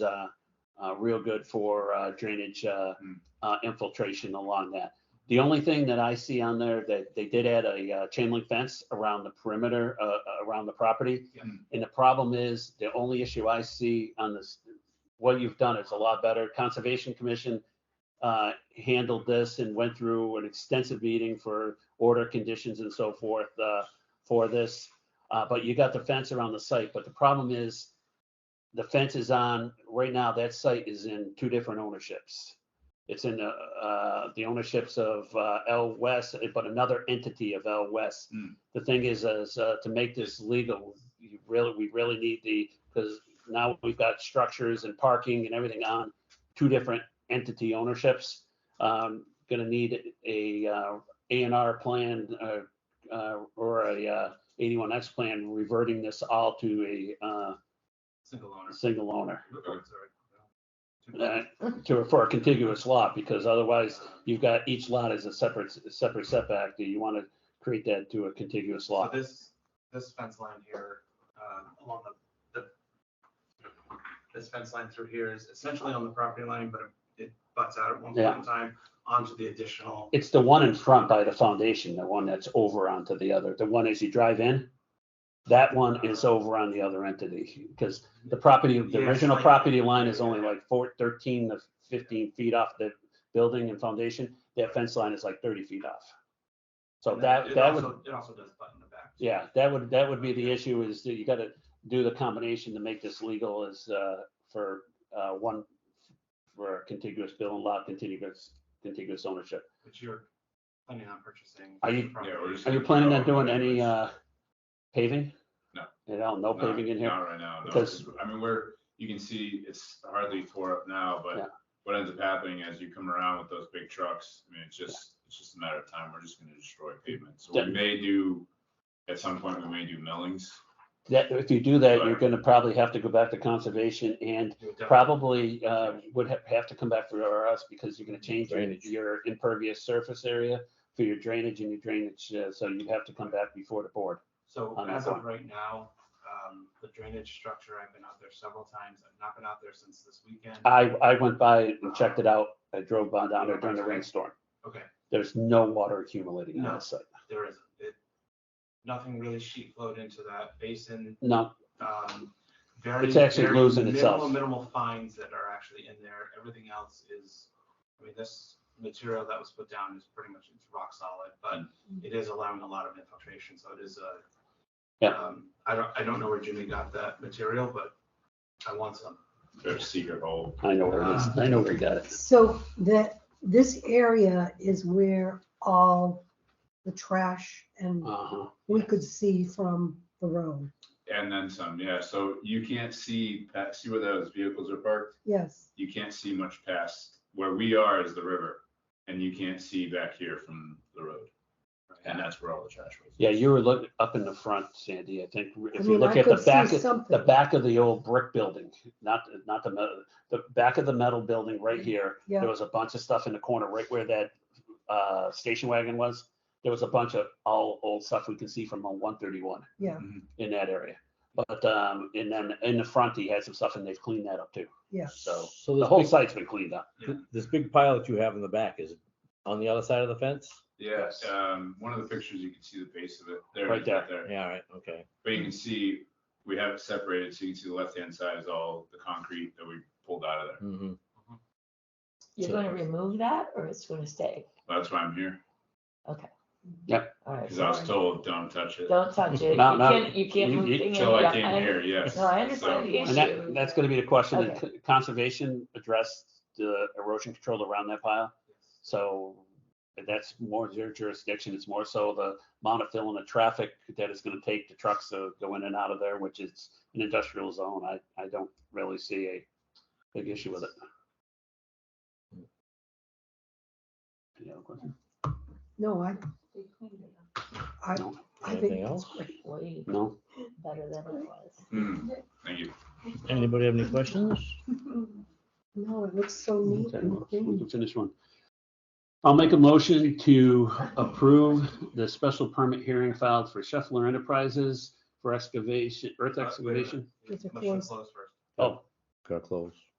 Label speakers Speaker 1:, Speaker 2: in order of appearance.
Speaker 1: uh, uh, real good for uh, drainage uh,
Speaker 2: Mm.
Speaker 1: uh, infiltration along that. The only thing that I see on there that they did add a uh, chain link fence around the perimeter, uh, uh, around the property.
Speaker 2: Yeah.
Speaker 1: And the problem is, the only issue I see on this, what you've done is a lot better. Conservation Commission uh, handled this and went through an extensive meeting for order conditions and so forth uh, for this. Uh, But you got the fence around the site, but the problem is, the fence is on, right now, that site is in two different ownerships. It's in uh, uh, the ownerships of uh, L West, but another entity of L West.
Speaker 2: Hmm.
Speaker 1: The thing is, is uh, to make this legal, you really, we really need the, because now we've got structures and parking and everything on two different entity ownerships. Um, Gonna need a uh, A and R plan uh, uh, or a eighty-one X plan reverting this all to a uh,
Speaker 2: Single owner.
Speaker 1: single owner
Speaker 2: Oh, sorry. Two-
Speaker 1: uh, to, for a contiguous lot, because
Speaker 2: Uh,
Speaker 1: otherwise you've got each lot as a separate, separate setback. Do you want to create that to a contiguous
Speaker 2: So
Speaker 1: lot?
Speaker 2: this, this fence line here, uh, along the, the, this fence line through here is essentially on the property line, but it butts out at one point in time onto the additional.
Speaker 1: It's the one in front by the foundation, the one that's over onto the other, the one as you drive in. That one is over on the other entity, because the property, the
Speaker 2: Yeah, it's
Speaker 1: original
Speaker 2: like-
Speaker 1: property line is only like four, thirteen to fifteen feet off the building and foundation. That fence line is like thirty feet off. So
Speaker 2: And
Speaker 1: that,
Speaker 2: it
Speaker 1: that would.
Speaker 2: also- It also does butt in the back.
Speaker 1: Yeah, that would, that would be the issue is that you gotta do the combination to make this legal is, uh, for, uh, one, for a contiguous bill and lot, contiguous, contiguous ownership.
Speaker 2: Which you're planning on purchasing.
Speaker 1: Are you-
Speaker 2: the property.
Speaker 3: Yeah, we're just-
Speaker 1: Are you planning on doing any, uh, paving?
Speaker 3: No.
Speaker 1: At all, no paving in here?
Speaker 3: Not right now, no,
Speaker 1: Because-
Speaker 3: 'cause, I mean, we're, you can see it's hardly tore up now,
Speaker 1: Yeah.
Speaker 3: but what ends up happening as you come around with those big trucks, I mean, it's just, it's just a matter of time, we're just gonna destroy pavement. So
Speaker 1: Yeah.
Speaker 3: we may do, at some point, we may do millings.
Speaker 1: That, if you do that, you're gonna probably have to go back to conservation and
Speaker 2: You would definitely-
Speaker 1: probably, uh, would have, have to come back for us because you're gonna change your,
Speaker 4: Drainage.
Speaker 1: your impervious surface area for your drainage and your drainage, uh, so you'd have to come back before the board.
Speaker 2: So
Speaker 1: on that
Speaker 2: as of
Speaker 1: one.
Speaker 2: right now, um, the drainage structure, I've been out there several times. I've not been out there since this weekend.
Speaker 1: I, I went by and checked it out. I drove by down there during the rainstorm.
Speaker 2: Okay,
Speaker 1: There's no water accumulating on the site.
Speaker 2: there isn't. It, nothing really sheet flowed into that basin.
Speaker 1: No,
Speaker 2: um, very.
Speaker 1: It's actually
Speaker 2: very
Speaker 1: losing
Speaker 2: minimal-
Speaker 1: itself.
Speaker 2: Minimal fines that are actually in there. Everything else is, I mean, this material that was put down is pretty much, it's rock solid, but it is allowing a lot of infiltration, so it is a.
Speaker 1: Yeah.
Speaker 2: um, I don't, I don't know where Jimmy got that material, but I want some.
Speaker 3: There's a secret hole.
Speaker 1: I know where it is. I know where he got it.
Speaker 5: So that, this area is where all the trash and
Speaker 1: Uh-huh.
Speaker 5: we could see from the road.
Speaker 3: And then some, yeah, so you can't see, pa- see where those vehicles are parked,
Speaker 5: Yes,
Speaker 3: you can't see much past, where we are is the river, and you can't see back here from the road. And that's where all the trash was.
Speaker 1: Yeah, you were looking up in the front, Sandy, I think.
Speaker 5: I
Speaker 1: If you
Speaker 5: mean,
Speaker 1: look
Speaker 5: I
Speaker 1: at the
Speaker 5: could
Speaker 1: back,
Speaker 5: see
Speaker 1: of- the
Speaker 5: something.
Speaker 1: back of the old brick building, not, not the, metal- the back of the metal building right here.
Speaker 5: Yeah.
Speaker 1: There was a bunch of stuff in the corner right where that, uh, station wagon was. There was a bunch of all old stuff we can see from on one thirty-one.
Speaker 5: Yeah.
Speaker 1: In that area. But, um, and then in the front, he had some stuff and they've cleaned that up too.
Speaker 5: yes.
Speaker 1: So
Speaker 4: So
Speaker 1: The
Speaker 4: this
Speaker 1: whole
Speaker 4: big,
Speaker 1: site's been cleaned up.
Speaker 2: Yeah.
Speaker 4: this big pile that you have in the back is it on the other side of the fence?
Speaker 3: Yeah,
Speaker 1: Yes.
Speaker 3: um, one of the pictures, you can see the base of it. There
Speaker 1: Right
Speaker 3: it is, right there.
Speaker 4: Yeah, all right, okay.
Speaker 3: But you can see, we have it separated, so you can see the left-hand side is all the concrete that we pulled out of there.
Speaker 4: hmm
Speaker 6: You're gonna remove that or it's gonna stay?
Speaker 3: That's why I'm here,
Speaker 6: All right.
Speaker 3: because I was
Speaker 6: fine.
Speaker 3: told, don't touch it.
Speaker 6: Don't touch it. You
Speaker 1: No, no,
Speaker 6: can't, you can't
Speaker 1: you-
Speaker 6: move
Speaker 1: you-
Speaker 6: thing in.
Speaker 3: Till I
Speaker 6: Yeah,
Speaker 3: came here, yes.
Speaker 6: No, I
Speaker 3: So-
Speaker 6: understand the
Speaker 1: And
Speaker 6: issue.
Speaker 1: that, that's gonna be the question, that
Speaker 6: Okay.
Speaker 1: c- conservation addressed the erosion control around that pile, so that's more their jurisdiction, it's more so the amount of fill in the traffic that it's gonna take the trucks to go in and out of there, which is an industrial zone, I, I don't really see a big issue with it. Any other questions?
Speaker 5: No, I, I,
Speaker 1: No?
Speaker 5: I
Speaker 4: Anything
Speaker 5: think that's
Speaker 4: else?
Speaker 5: great.
Speaker 6: Way
Speaker 1: No?
Speaker 6: better than it was.
Speaker 3: Hmm, Thank you.
Speaker 4: Anybody have any questions?
Speaker 5: No, it looks so neat
Speaker 1: Okay,
Speaker 5: and
Speaker 1: well, We
Speaker 5: clean.
Speaker 1: can finish one. I'll make a motion to approve the special permit hearing filed for Scheffler Enterprises for excavation, earth
Speaker 2: Uh, wait a
Speaker 1: excavation.
Speaker 2: minute.
Speaker 5: It's a
Speaker 2: Motion
Speaker 5: close.
Speaker 2: close first.
Speaker 1: Oh,
Speaker 4: gotta close.